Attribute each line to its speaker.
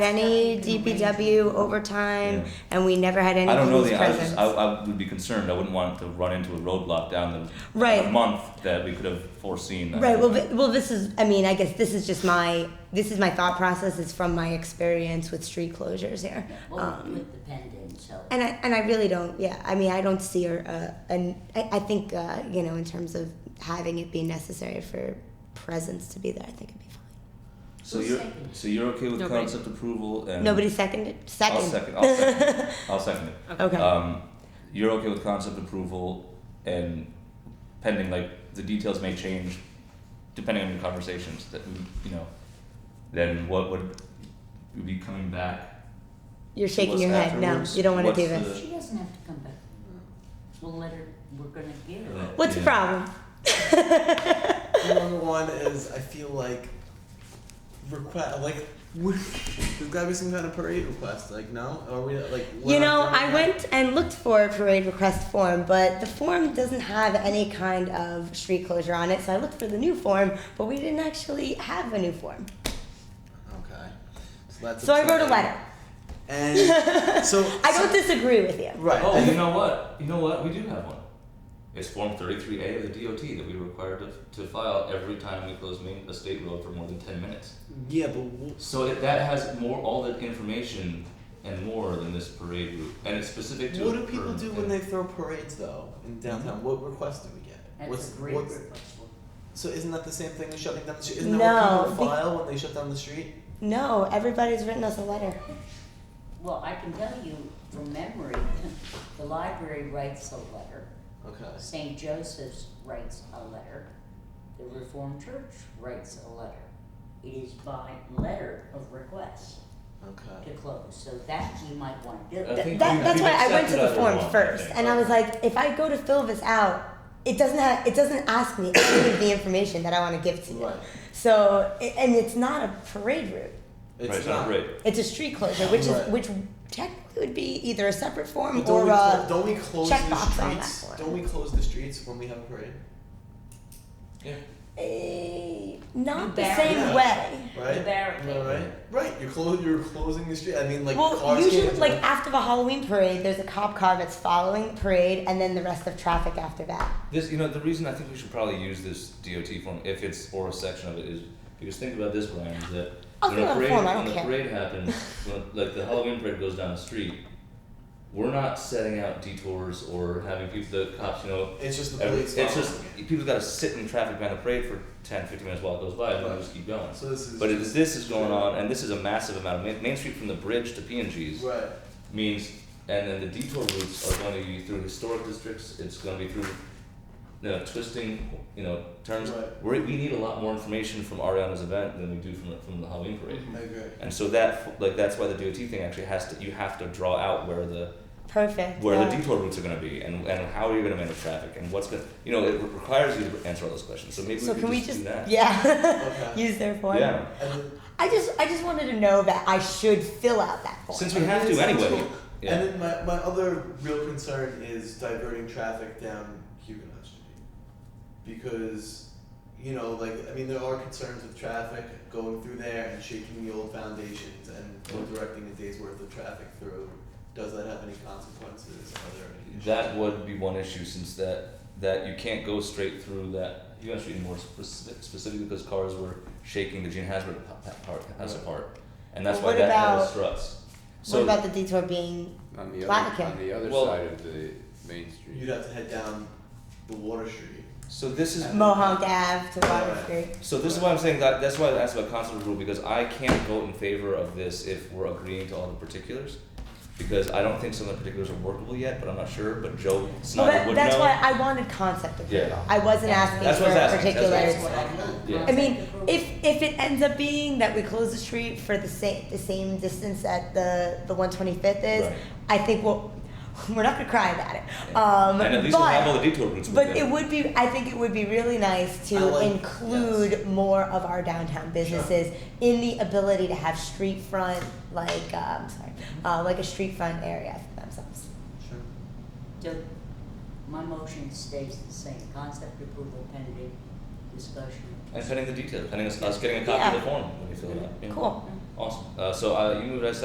Speaker 1: any DPW
Speaker 2: Yeah.
Speaker 1: overtime, and we never had any
Speaker 2: I don't know
Speaker 1: police
Speaker 2: the, I was just, I,
Speaker 1: presence.
Speaker 2: I would be concerned, I wouldn't want to run into a roadblock down the
Speaker 1: Right.
Speaker 2: a month that we could have foreseen.
Speaker 1: Right, well, thi- well, this is, I mean, I guess this is just my, this is my thought process, it's from my experience with street closures here.
Speaker 3: Well,
Speaker 1: Um,
Speaker 3: with the pendant, so.
Speaker 1: And I, and I really don't, yeah, I mean, I don't see her, uh, and I, I think, uh, you know, in terms of having it be necessary for presence to be there, I think it'd be fine.
Speaker 2: So you're, so you're okay with
Speaker 4: Nobody.
Speaker 2: concept approval and.
Speaker 1: Nobody seconded,
Speaker 2: I'll
Speaker 1: second,
Speaker 2: second, I'll second, it. I'll second it.
Speaker 1: okay,
Speaker 2: Um, you're okay with concept approval and pending, like, the details may change depending on your conversations that, we- you know, then what would, would be coming back?
Speaker 1: you're shaking
Speaker 2: what's
Speaker 1: your head, no,
Speaker 2: afterwards?
Speaker 1: you don't wanna
Speaker 2: What's
Speaker 1: do
Speaker 2: the-
Speaker 1: this.
Speaker 3: She doesn't have to come back. We'll let her, we're gonna give her.
Speaker 1: What's the
Speaker 2: Yeah.
Speaker 1: problem?
Speaker 5: Number one is I feel like request like there's gotta be some kind of parade request. Like no, are we like? we're
Speaker 1: You
Speaker 5: not
Speaker 1: know,
Speaker 5: doing
Speaker 1: I
Speaker 5: that.
Speaker 1: went and looked for a parade request form, but the form doesn't have any kind of street closure on it. So I looked for the new form, but we didn't actually have a new form.
Speaker 5: Okay, so that's.
Speaker 1: So I wrote a
Speaker 5: upsetting.
Speaker 1: letter.
Speaker 5: And so
Speaker 1: I don't disagree with you.
Speaker 5: Right.
Speaker 2: Oh, you know what? You know what? We do have one. It's Form 33A of the DOT that we require to, to file every time we close main, a state road for more than 10 minutes.
Speaker 5: yeah, but w-
Speaker 2: So it, that has more, all the information and more than this parade route. And it's specific to.
Speaker 5: what
Speaker 2: a
Speaker 5: do people
Speaker 2: permit.
Speaker 5: do when they throw parades though in
Speaker 2: Mm-hmm.
Speaker 5: downtown? What requests do we get?
Speaker 3: That's
Speaker 5: what's
Speaker 3: a great
Speaker 5: what's-
Speaker 3: request.
Speaker 5: so isn't that the same thing as shutting down the street? Isn't that
Speaker 1: No,
Speaker 5: what people
Speaker 1: be-
Speaker 5: file when they shut down the street?
Speaker 1: No, everybody's written us a letter.
Speaker 3: Well, I can tell you from memory, the library writes a letter,
Speaker 5: Okay.
Speaker 3: St. Joseph's writes a letter, the Reformed Church writes a letter. It is by letter of request
Speaker 5: Okay.
Speaker 3: to close, so that you might wanna do.
Speaker 2: I
Speaker 1: Th-
Speaker 2: think
Speaker 1: that-
Speaker 2: we-
Speaker 1: that's
Speaker 2: we've
Speaker 1: why I went to
Speaker 2: accepted
Speaker 1: the
Speaker 2: other
Speaker 1: form
Speaker 2: one, I
Speaker 1: first,
Speaker 2: think,
Speaker 1: and I
Speaker 2: right?
Speaker 1: was like, if I go to fill this out, it doesn't have, it doesn't ask me any of the information that I want to give to you.
Speaker 5: Right.
Speaker 1: So, i- and it's not a parade route.
Speaker 5: It's
Speaker 2: Right, it's
Speaker 5: not.
Speaker 2: not great.
Speaker 1: It's a street closure, which is
Speaker 5: Right.
Speaker 1: which technically would be either a separate form
Speaker 5: But don't,
Speaker 1: or
Speaker 5: we clo-
Speaker 1: a.
Speaker 5: don't we close
Speaker 1: check
Speaker 5: the
Speaker 1: box on that
Speaker 5: streets?
Speaker 1: one.
Speaker 5: Don't we close the streets when we have a parade?
Speaker 2: Yeah.
Speaker 1: eh, not the
Speaker 3: Barrier.
Speaker 1: same way.
Speaker 5: Right.
Speaker 3: The barricade.
Speaker 5: Am I right? Right. You're clo- You're closing the street. I mean, like
Speaker 1: well,
Speaker 5: cars
Speaker 1: usually,
Speaker 5: can't
Speaker 1: like
Speaker 5: drive-
Speaker 1: after the Halloween parade, there's a cop car that's following the parade, and then the rest of traffic after that.
Speaker 2: This, you know, the reason I think we should probably use this DOT form, if it's or a section of it, is because think about this, Brian, is that
Speaker 1: I'll
Speaker 2: when
Speaker 1: fill
Speaker 2: a
Speaker 1: out a
Speaker 2: parade,
Speaker 1: form, I
Speaker 2: when
Speaker 1: don't
Speaker 2: a
Speaker 1: care.
Speaker 2: parade happens, when, like the Halloween parade goes down the street, we're not setting out detours or having people, the cops, you know,
Speaker 5: It's just the
Speaker 2: every,
Speaker 5: police.
Speaker 2: it's just people got to sit in traffic behind a parade for 10, 15 minutes while it goes by, and then
Speaker 5: Right.
Speaker 2: they just keep going.
Speaker 5: So this is.
Speaker 2: But it is, this is going on, and this is a massive amount. Main, Main Street from the bridge to P&G's
Speaker 5: Right.
Speaker 2: means, and then the detour routes are going to be through historic districts. It's going to be through, you know, twisting, you know, turns.
Speaker 5: Right.
Speaker 2: We're, we need a lot more information from Ariana's event than we do from the, from the Halloween parade.
Speaker 1: Mm-hmm.
Speaker 5: I agree.
Speaker 2: And so that f- like that's why the DOT thing actually has to you have to draw out where the
Speaker 1: Perfect.
Speaker 2: where
Speaker 1: yeah.
Speaker 2: the detour routes are going to be and, and how are you going to manage traffic and what's going to you know it re- requires you to answer all those questions. So maybe
Speaker 1: So
Speaker 2: we
Speaker 1: can
Speaker 2: could
Speaker 1: we
Speaker 2: just,
Speaker 1: just
Speaker 2: do that.
Speaker 1: yeah
Speaker 5: Okay.
Speaker 1: use their form?
Speaker 2: yeah.
Speaker 5: And then,
Speaker 1: I just I just wanted to know that I should fill out that form.
Speaker 2: Since we have to anyway. Yeah.
Speaker 5: And then my, my other real concern is diverting traffic down Huguenot Street. Because, you know, like, I mean, there are concerns with traffic going through there and shaking the old foundations and directing a day's worth of traffic through. Does that have any consequences? Are there any issues?
Speaker 2: That would be one issue since that that you can't go straight through that. You have to be more specific, specifically because cars were shaking the Gene Hazard pa- pa- part, house
Speaker 5: Right.
Speaker 2: apart, and that's
Speaker 1: Well,
Speaker 2: why
Speaker 1: what
Speaker 2: that had
Speaker 1: about-
Speaker 2: a struts.
Speaker 1: what
Speaker 2: So
Speaker 1: about the detour being
Speaker 6: On the
Speaker 1: Plaquemine.
Speaker 6: other, on the other
Speaker 2: Well-
Speaker 6: side of the main
Speaker 5: You'd
Speaker 6: street.
Speaker 5: have to head down the Water Street.
Speaker 2: so this
Speaker 1: Uh,
Speaker 2: is
Speaker 1: Mohawk Ave to Water Street?
Speaker 2: so this is why I'm saying that that's why I asked about constant rule because I can't vote in favor of this if we're agreeing to all the particulars. Because I don't think some of the particulars are workable yet, but I'm not sure. But Joe
Speaker 1: Well,
Speaker 2: Snyder
Speaker 1: that,
Speaker 2: would
Speaker 1: that's
Speaker 2: know.
Speaker 1: why I wanted concept approval.
Speaker 2: Yeah.
Speaker 1: I wasn't asking
Speaker 2: That's
Speaker 1: for
Speaker 2: what I was asking, that's what I
Speaker 1: particulars.
Speaker 2: was
Speaker 3: That's what I meant.
Speaker 2: Yeah.
Speaker 1: I mean, if if it ends up being that we close the street for the same the same distance that the the 125th is,
Speaker 2: Right.
Speaker 1: I think we'll we're not gonna cry about it.
Speaker 2: Yeah.
Speaker 1: Um,
Speaker 2: and at least
Speaker 1: but,
Speaker 2: we'll have all the detour routes.
Speaker 1: but
Speaker 2: with
Speaker 1: it would be I think it would be really nice to
Speaker 5: I like-
Speaker 1: include more of our downtown businesses in the ability to have street front like uh, I'm sorry uh, like a street front area for themselves.
Speaker 5: Sure.
Speaker 3: So, my motion stays the same, concept approval pending discussion.
Speaker 2: And pending the details, pending us, us getting a copy of the form when we fill it out. yeah.
Speaker 1: Cool.
Speaker 2: Awesome. Uh, so uh, you moved us